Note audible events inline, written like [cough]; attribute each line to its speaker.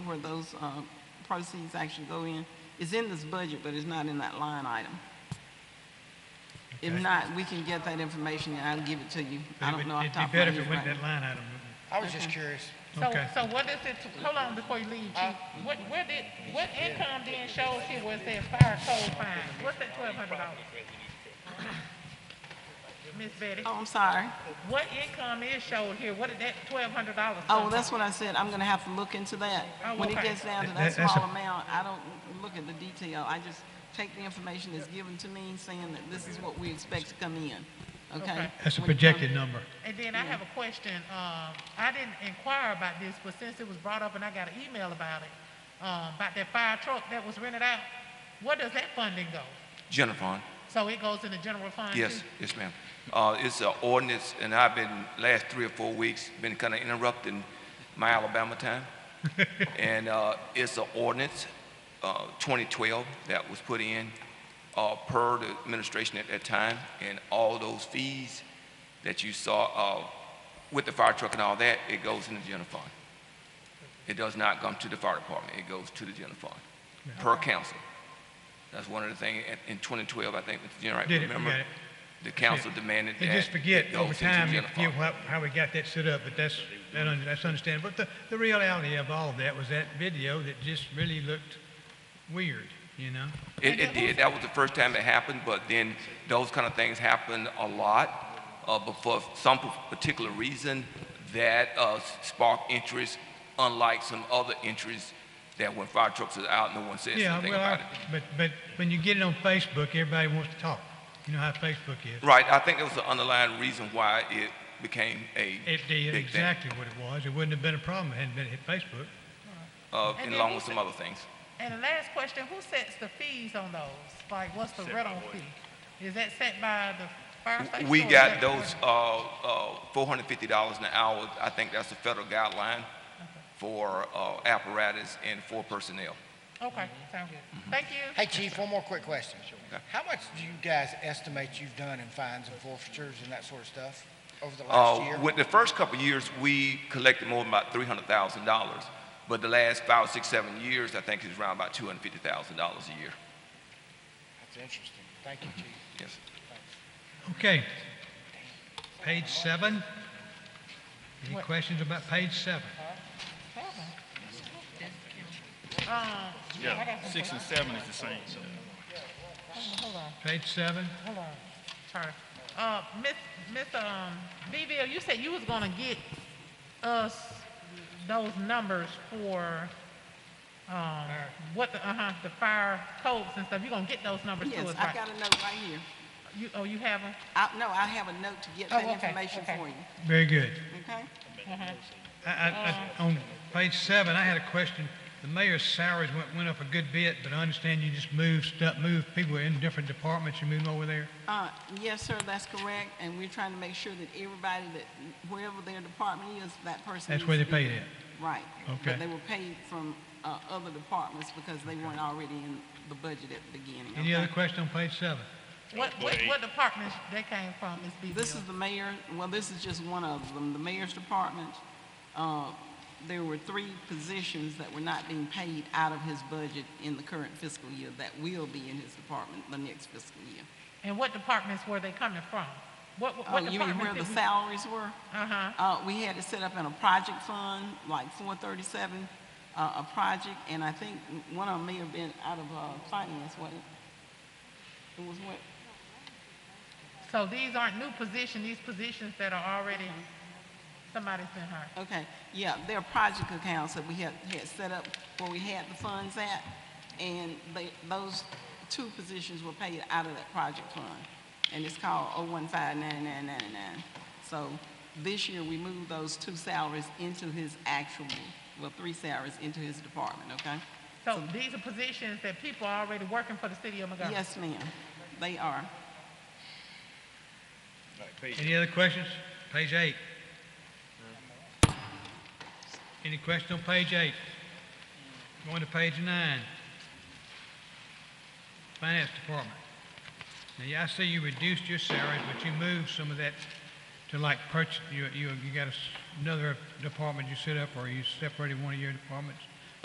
Speaker 1: where those uh, proceeds actually go in. It's in this budget, but it's not in that line item. If
Speaker 2: Okay.
Speaker 1: not, we can get that information and I'll give it to you.
Speaker 2: But
Speaker 1: I
Speaker 2: it
Speaker 1: don't
Speaker 2: would-
Speaker 1: know off the top
Speaker 2: It'd
Speaker 1: of
Speaker 2: be
Speaker 1: my
Speaker 2: better if it went
Speaker 1: head
Speaker 2: that
Speaker 1: right
Speaker 2: line item, wouldn't
Speaker 3: I was just curious.
Speaker 4: So,
Speaker 2: Okay.
Speaker 4: so what is it, hold on before you leave,
Speaker 1: Uh,
Speaker 4: Chief. What, where did, what income then shows here was that fire code fine? What's that twelve
Speaker 1: [laughs]
Speaker 4: hundred dollars? Miss Betty,
Speaker 1: now. Oh, I'm sorry.
Speaker 4: what income is showed here? What did that twelve hundred dollars?
Speaker 1: Oh, that's what I said, I'm gonna have to look into that.
Speaker 4: Oh,
Speaker 1: When it
Speaker 4: okay.
Speaker 1: gets down to
Speaker 2: That-
Speaker 1: that
Speaker 2: that's a-
Speaker 1: small amount, I don't look at the detail, I just take the information that's given to me, saying that this is what we expect to come in, okay?
Speaker 4: Okay.
Speaker 2: That's a
Speaker 1: When it comes-
Speaker 2: projected number.
Speaker 4: And then I have a question, um, I didn't inquire about this, but since it was brought up and I got an email about it, um, about that fire truck that was rented out, where does that funding go?
Speaker 5: General Fund,
Speaker 4: So it goes in the general fund too?
Speaker 5: yes, yes, ma'am. Uh, it's an ordinance, and I've been, last three or four weeks, been kind of interrupting my
Speaker 2: [laughs]
Speaker 5: Alabama time. And, uh, it's an ordinance, uh, 2012 that was put in, uh, per the administration at that time. And all those fees that you saw, uh, with the fire truck and all that, it goes in the general fund. It does not come to the fire department. It goes to the general fund, per council. That's one of the things, in 2012, I think, Mr. General, I
Speaker 2: Did it, we
Speaker 5: remember?
Speaker 2: got it.
Speaker 5: The council demanded that.
Speaker 2: They just
Speaker 5: it
Speaker 2: forget
Speaker 5: goes
Speaker 2: over
Speaker 5: into
Speaker 2: time, you
Speaker 5: general
Speaker 2: forget
Speaker 5: fund.
Speaker 2: how, how we got that set up, but that's, that un- that's understandable. But the, the reality of all that was that video that just really looked weird, you know?
Speaker 5: It, it did. That was the first time it happened, but then those kind of things happen a lot. Uh, but for some p- particular reason, that uh, sparked interest, unlike some other interests that when fire trucks are out, no one says
Speaker 2: Yeah,
Speaker 5: anything
Speaker 2: well,
Speaker 5: about it.
Speaker 2: I- but, but when you get it on Facebook, everybody wants to talk. You know how Facebook is.
Speaker 5: Right, I think that was the underlying reason why it became a
Speaker 2: It did
Speaker 5: big thing,
Speaker 2: exactly what it was. It wouldn't have been a problem if it hadn't been hit Facebook.
Speaker 5: uh,
Speaker 4: And
Speaker 5: and
Speaker 4: then
Speaker 5: along
Speaker 4: who
Speaker 5: with some
Speaker 4: said-
Speaker 5: other things.
Speaker 4: And the last question, who sets the fees on those? Like, what's the rental fee? Is that set by the fire station?
Speaker 5: We
Speaker 4: or is that-
Speaker 5: got those, uh, uh, four hundred fifty dollars an hour, I think that's the federal guideline for, uh, apparatus and for personnel.
Speaker 4: Okay, sound good.
Speaker 5: Mm-hmm.
Speaker 4: Thank you.
Speaker 3: Hey, Chief, one more quick question.
Speaker 5: Sure.
Speaker 3: How much do you guys estimate you've done in fines and forfeitures and that sort of stuff over the last
Speaker 5: Uh,
Speaker 3: year?
Speaker 5: with the first couple of years, we collected more than about three hundred thousand dollars, but the last five, six, seven years, I think it's around about two hundred fifty thousand dollars a year,
Speaker 3: That's interesting. Thank you, Chief.
Speaker 5: yes.
Speaker 2: Okay. Page seven. Any
Speaker 4: What?
Speaker 2: questions about page seven?
Speaker 4: Um, yeah, I got some
Speaker 6: Six
Speaker 4: questions.
Speaker 6: and seven is the same.
Speaker 4: Hold on,
Speaker 2: Page seven?
Speaker 4: hold on. Sorry. Uh, Miss, Miss, um, Beville, you said you was gonna get us those numbers for, um, what the, uh-huh, the fire codes and stuff. You gonna get those numbers to
Speaker 1: Yes,
Speaker 4: us,
Speaker 1: I've
Speaker 4: right?
Speaker 1: got a note right here.
Speaker 4: You, oh, you have them?
Speaker 1: I, no, I have a note to get
Speaker 4: Oh,
Speaker 1: that
Speaker 4: okay,
Speaker 1: information
Speaker 4: okay.
Speaker 1: for you,
Speaker 2: Very good.
Speaker 1: okay?
Speaker 2: I, I, I, on page seven, I had a question. The mayor's salaries went, went up a good bit, but I understand you just moved stuff, moved people in different departments, you moved them over there.
Speaker 1: Uh, yes, sir, that's correct, and we're trying to make sure that everybody that, wherever their department is, that person.
Speaker 2: That's where
Speaker 1: needs
Speaker 2: they
Speaker 1: to be
Speaker 2: paid
Speaker 1: there. Right.
Speaker 2: Okay.
Speaker 1: But they were paid from, uh, other departments because they weren't already in the budget at the beginning.
Speaker 2: Any other
Speaker 1: okay?
Speaker 2: question on page seven?
Speaker 4: What, what, what departments they came from, Miss Beville?
Speaker 1: This is the mayor, well, this is just one of them, the mayor's department. Uh, There were three positions that were not being paid out of his budget in the current fiscal year that will be in his department the next fiscal year.
Speaker 4: And what departments were they coming from? What, what
Speaker 1: Oh, you mean
Speaker 4: departments
Speaker 1: where the
Speaker 4: did we-
Speaker 1: salaries were?
Speaker 4: Uh-huh.
Speaker 1: Uh, we had it set up in a project fund, like four thirty-seven, uh, a project, and I think one of them may have been out of, uh, finance, wasn't it? It was what,
Speaker 4: So these aren't new positions, these positions that are already,
Speaker 1: Uh-huh.
Speaker 4: somebody's been hired.
Speaker 1: okay, yeah, there are project accounts that we had, had set up where we had the funds at, and they, those two positions were paid out of that project fund. And it's called oh one five nine nine nine nine. So this year, we moved those two salaries into his actual, well, three salaries into his department, okay?
Speaker 4: So these are positions that people are already working for the city of Montgomery.
Speaker 1: Yes, ma'am, they are.
Speaker 2: Any other questions? Page eight. Any question on page eight? Going to page nine. Finance Department. Now, yeah, I see you reduced your salaries, but you moved some of that to like purchase, you, you, you got a s- another department you set up, or you separated one of your departments